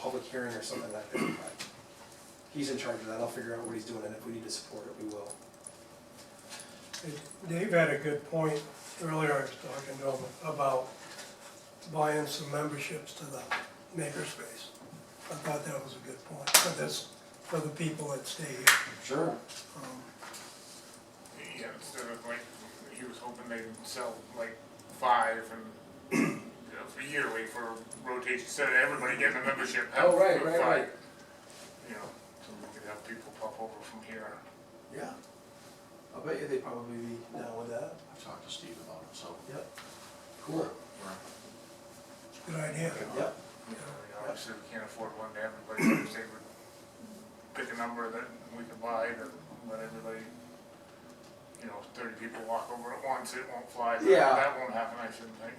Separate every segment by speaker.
Speaker 1: public hearing or something like that. but He's in charge of that, I'll figure out what he's doing, and if we need to support it, we will.
Speaker 2: Dave had a good point earlier, I was talking to him about buying some memberships to the makerspace. I thought that was a good point for this, for the people that stay here.
Speaker 1: Sure.
Speaker 2: Um,
Speaker 3: Yeah, instead of like, he was hoping they'd sell like five and you know, a year wait for rotation, instead of everybody getting a membership. have
Speaker 1: Oh, right,
Speaker 3: five,
Speaker 1: right, right.
Speaker 3: You know, so we could have people pop over from here.
Speaker 1: Yeah. I'll bet you they'd probably be down with that.
Speaker 4: I've talked to Steve about it, so.
Speaker 1: Yep. Cool.
Speaker 2: Good idea.
Speaker 1: Yep.
Speaker 3: You know, I mean, Obviously, we can't afford one to everybody, so if they would pick a number that we could buy, that let everybody, you know, thirty people walk over at once, it won't fly, but
Speaker 1: Yeah.
Speaker 3: that won't happen, I shouldn't think.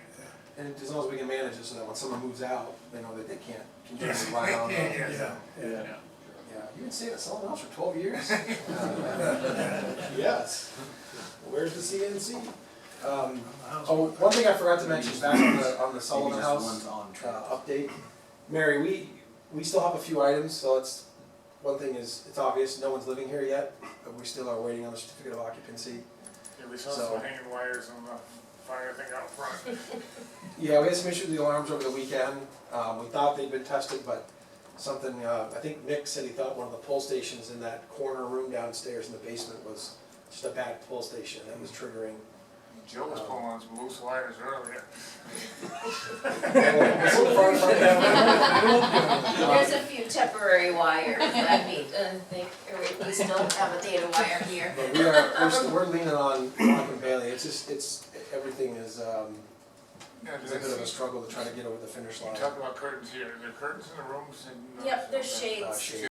Speaker 1: And as long as we can manage it so that when someone moves out, they know that they can't continue to
Speaker 3: Yes.
Speaker 1: rely on them.
Speaker 3: Yeah.
Speaker 2: Yeah, yeah.
Speaker 3: Yeah.
Speaker 1: Yeah, you've been staying at someone else for twelve years? Yes. Where's the CNC? Um, oh, one thing I forgot to mention back on the, on the Sullivan
Speaker 4: Maybe just
Speaker 1: House,
Speaker 4: one's on
Speaker 1: uh,
Speaker 4: track.
Speaker 1: update. Mary, we, we still have a few items, so it's, one thing is, it's obvious, no one's living here yet, but we still are waiting on the certificate of occupancy.
Speaker 3: Yeah, we saw
Speaker 1: So-
Speaker 3: some hanging wires on the fire thing out front.
Speaker 1: Yeah, we had some issues with the alarms over the weekend. Um, we thought they'd been tested, but something, uh, I think Nick said he thought one of the pull stations in that corner room downstairs in the basement was just a bad pull station that was triggering.
Speaker 3: Joe
Speaker 1: Oh.
Speaker 3: was pulling on some loose wires earlier.
Speaker 5: There's a
Speaker 1: Um,
Speaker 5: few temporary wires that we, uh, think, or we- we still have a data wire here.
Speaker 1: But we are, we're, still- we're leaning on Mark and Bailey. It's just, it's, everything is, um,
Speaker 3: Yeah,
Speaker 1: it's a bit
Speaker 3: there's-
Speaker 1: of a struggle to try to get over the finish
Speaker 3: You
Speaker 1: line.
Speaker 3: talk about curtains here, are there curtains in the rooms and?
Speaker 5: Yep, there's
Speaker 3: Okay.
Speaker 1: Uh,
Speaker 5: shades.
Speaker 1: shades,